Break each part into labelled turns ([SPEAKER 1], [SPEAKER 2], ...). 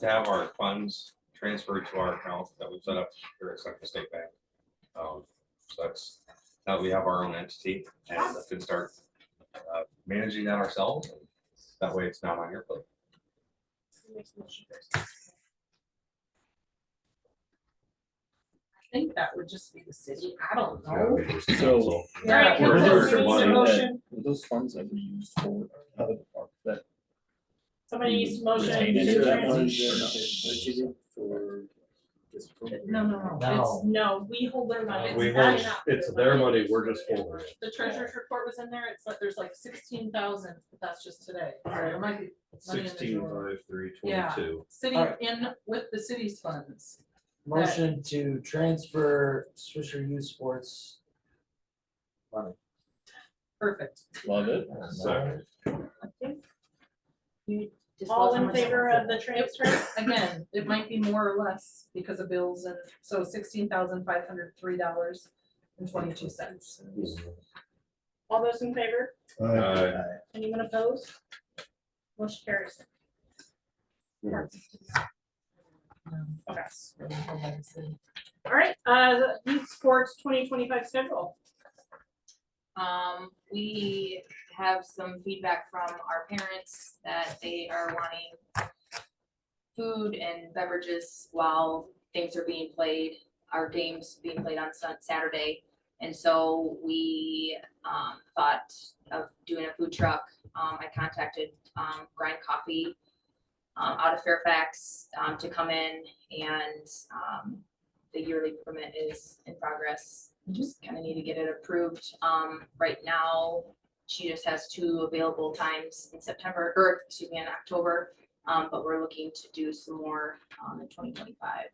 [SPEAKER 1] to have our funds transferred to our account that we've set up here at Central State Bank. Um, So that's, now we have our own entity and can start uh, managing that ourselves. That way it's not on your plate.
[SPEAKER 2] I think that would just be the city, I don't know.
[SPEAKER 3] So.
[SPEAKER 2] Alright,
[SPEAKER 3] We're-
[SPEAKER 2] consensus
[SPEAKER 3] we're-
[SPEAKER 2] needs a
[SPEAKER 3] we're-
[SPEAKER 2] motion,
[SPEAKER 3] Were those funds ever used for other departments that?
[SPEAKER 2] somebody needs a motion.
[SPEAKER 3] Retain
[SPEAKER 2] to
[SPEAKER 3] any of that
[SPEAKER 2] trans-
[SPEAKER 3] money or not?
[SPEAKER 2] No, no, no, it's, no, we hold their money. It's
[SPEAKER 4] We
[SPEAKER 2] not
[SPEAKER 4] hold-
[SPEAKER 2] enough.
[SPEAKER 4] it's their money, we're just holding it.
[SPEAKER 2] The treasurer's report was in there, it's like, there's like sixteen thousand, but that's just today, or it might be money in the
[SPEAKER 4] Sixteen
[SPEAKER 2] drawer.
[SPEAKER 4] five three
[SPEAKER 2] Yeah.
[SPEAKER 4] twenty-two.
[SPEAKER 2] City
[SPEAKER 5] Alright.
[SPEAKER 2] in with the city's funds,
[SPEAKER 5] Motion to transfer Swisher Youth Sports. money.
[SPEAKER 2] perfect.
[SPEAKER 3] Love it.
[SPEAKER 4] Second.
[SPEAKER 2] All in favor of the transfer? Again, it might be more or less because of bills and, so sixteen thousand five hundred three dollars and twenty-two cents.
[SPEAKER 6] All those in favor?
[SPEAKER 4] Uh,
[SPEAKER 6] Anyone opposed? Motion carries. Okay. All right, uh, the youth sports twenty twenty-five schedule.
[SPEAKER 7] Um, we have some feedback from our parents that they are wanting food and beverages while things are being played, our games being played on Sun, Saturday. And so we, um, thought of doing a food truck. Um, I contacted, um, Grind Coffee um, out of Fairfax, um, to come in and, um, the yearly permit is in progress. We Just kind of need to get it approved. Um, right now, she just has two available times in September, or excuse me, in October. Um, but we're looking to do some more, um, in twenty twenty-five.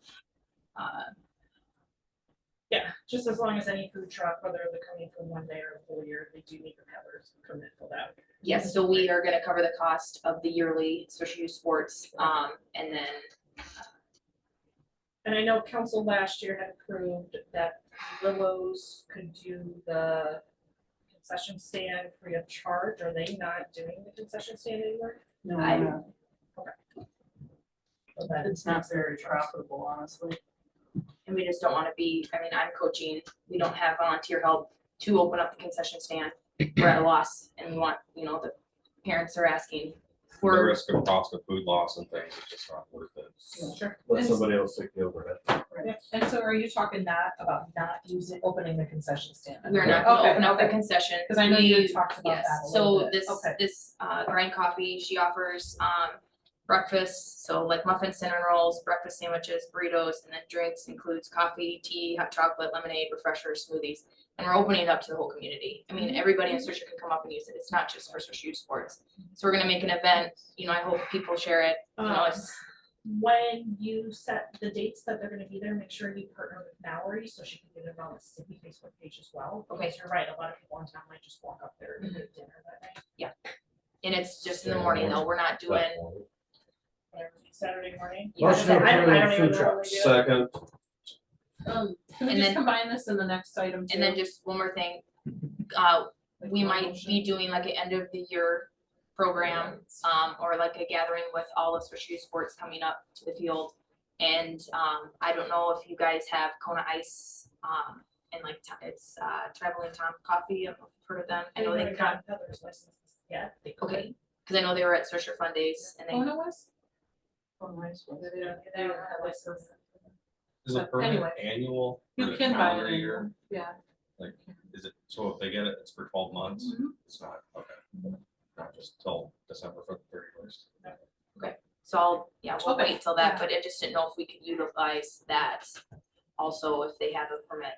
[SPEAKER 7] Uh,
[SPEAKER 6] Yeah, just as long as any food truck, whether they're coming from one day or a full year, they do need to have their permit filled out.
[SPEAKER 7] Yes, so we are gonna cover the cost of the yearly social use sports, um, and then
[SPEAKER 6] And I know council last year had approved that Willows could do the concession stand free of charge. Are they not doing the concession stand anymore?
[SPEAKER 7] I,
[SPEAKER 2] It's not very profitable, honestly.
[SPEAKER 7] and we just don't wanna be, I mean, I'm coaching, we don't have volunteer help to open up the concession stand. We're at a loss and we want, you know, the parents are asking
[SPEAKER 1] The
[SPEAKER 7] for,
[SPEAKER 1] risk of cost of food loss and things is just not worth it.
[SPEAKER 2] Sure.
[SPEAKER 4] let somebody else take over it.
[SPEAKER 2] And so are you talking not about not using, opening the concession stand?
[SPEAKER 7] we're not gonna
[SPEAKER 2] Okay,
[SPEAKER 7] open up the
[SPEAKER 2] okay.
[SPEAKER 7] concession.
[SPEAKER 2] Cause I know you
[SPEAKER 7] We-
[SPEAKER 2] talked about
[SPEAKER 7] Yes,
[SPEAKER 2] that a little
[SPEAKER 7] so
[SPEAKER 2] bit.
[SPEAKER 7] this,
[SPEAKER 2] Okay.
[SPEAKER 7] this, uh, grind coffee, she offers, um, breakfast, so like muffins, cinnamon rolls, breakfast sandwiches, burritos, and then drinks includes coffee, tea, hot chocolate, lemonade, refreshers, smoothies. And we're opening it up to the whole community. I mean, everybody in Swisher can come up and use it. It's not just for Swisher Youth Sports. So we're gonna make an event, you know, I hope people share it, you know,
[SPEAKER 6] Um,
[SPEAKER 7] it's,
[SPEAKER 6] when you set the dates that they're gonna be there, make sure you partner with Mallory so she can get it on the city Facebook page as well. Because you're right, a lot of people in town might just walk up there and get dinner that night.
[SPEAKER 7] and it's just in the morning though, we're not doing.
[SPEAKER 6] whatever, Saturday morning.
[SPEAKER 7] you know,
[SPEAKER 5] Motion to
[SPEAKER 6] I don't- I don't
[SPEAKER 5] approve
[SPEAKER 6] even
[SPEAKER 5] food
[SPEAKER 6] know what
[SPEAKER 5] trucks.
[SPEAKER 6] we do.
[SPEAKER 4] Second,
[SPEAKER 2] Um, can we
[SPEAKER 7] And
[SPEAKER 2] just
[SPEAKER 7] then-
[SPEAKER 2] combine this in the next item too?
[SPEAKER 7] And then just one more thing, uh,
[SPEAKER 2] Like
[SPEAKER 7] we
[SPEAKER 2] one
[SPEAKER 7] might
[SPEAKER 2] motion?
[SPEAKER 7] be doing like an end of the year program, um, or like a gathering with all of Swisher Youth Sports coming up to the field. And, um, I don't know if you guys have Kona Ice, um, and like, t- it's, uh, Traveling Tom Coffee, I've heard of them, I know
[SPEAKER 6] Anyone
[SPEAKER 7] they
[SPEAKER 6] who
[SPEAKER 7] got,
[SPEAKER 6] got peddler's licenses yet, they could.
[SPEAKER 7] okay, cause I know they were at Swisher Fun Days and
[SPEAKER 2] Oh,
[SPEAKER 7] they,
[SPEAKER 2] no, was? Oh, nice.
[SPEAKER 6] They don't- they don't have license.
[SPEAKER 1] Is a
[SPEAKER 2] But
[SPEAKER 1] permit
[SPEAKER 2] anyway.
[SPEAKER 1] annual? or
[SPEAKER 2] You
[SPEAKER 1] is it
[SPEAKER 2] can buy
[SPEAKER 1] calendar
[SPEAKER 2] it.
[SPEAKER 1] year?
[SPEAKER 2] Yeah.
[SPEAKER 1] Is it, so if they get it, it's for twelve months?
[SPEAKER 6] Mm-hmm.
[SPEAKER 1] It's not, okay. Not just till December thirty first.
[SPEAKER 7] so I'll, yeah, we'll
[SPEAKER 2] Okay,
[SPEAKER 7] wait till that,
[SPEAKER 2] yeah.
[SPEAKER 7] but I just didn't know if we could utilize that. Also, if they have a permit.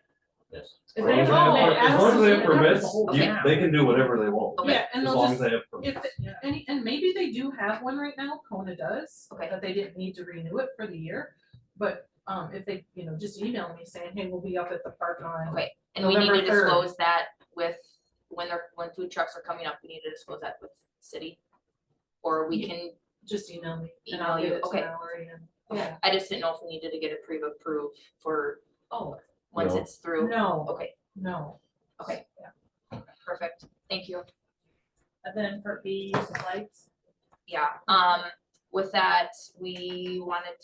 [SPEAKER 2] If
[SPEAKER 4] As
[SPEAKER 2] they
[SPEAKER 4] long as they
[SPEAKER 2] have-
[SPEAKER 4] have- as
[SPEAKER 2] they
[SPEAKER 4] long as they have
[SPEAKER 2] absolutely-
[SPEAKER 4] permits,
[SPEAKER 2] Okay.
[SPEAKER 4] you- they can do whatever they want,
[SPEAKER 7] Okay.
[SPEAKER 2] Yeah, and
[SPEAKER 4] as
[SPEAKER 2] they'll
[SPEAKER 4] long as
[SPEAKER 2] just,
[SPEAKER 4] they have permits.
[SPEAKER 2] if, any, and maybe they do have one right now, Kona does,
[SPEAKER 7] Okay.
[SPEAKER 2] that they didn't need to renew it for the year. But, um, if they, you know, just email me saying, hey, we'll be up at the park on.
[SPEAKER 7] Okay, and we need to
[SPEAKER 2] November third.
[SPEAKER 7] disclose that with, when they're, when food trucks are coming up, we need to disclose that with city. Or we can,
[SPEAKER 2] just email me and I'll
[SPEAKER 7] Email you,
[SPEAKER 2] give it to
[SPEAKER 7] okay.
[SPEAKER 2] Mallory and, yeah,
[SPEAKER 7] I just didn't know if we needed to get a pre-approved for,
[SPEAKER 2] oh,
[SPEAKER 7] once
[SPEAKER 4] No.
[SPEAKER 7] it's through.
[SPEAKER 2] no,
[SPEAKER 7] Okay,
[SPEAKER 2] no.
[SPEAKER 7] okay, perfect, thank you.
[SPEAKER 6] And then for bees and lights.
[SPEAKER 7] Yeah, um, With that, we wanted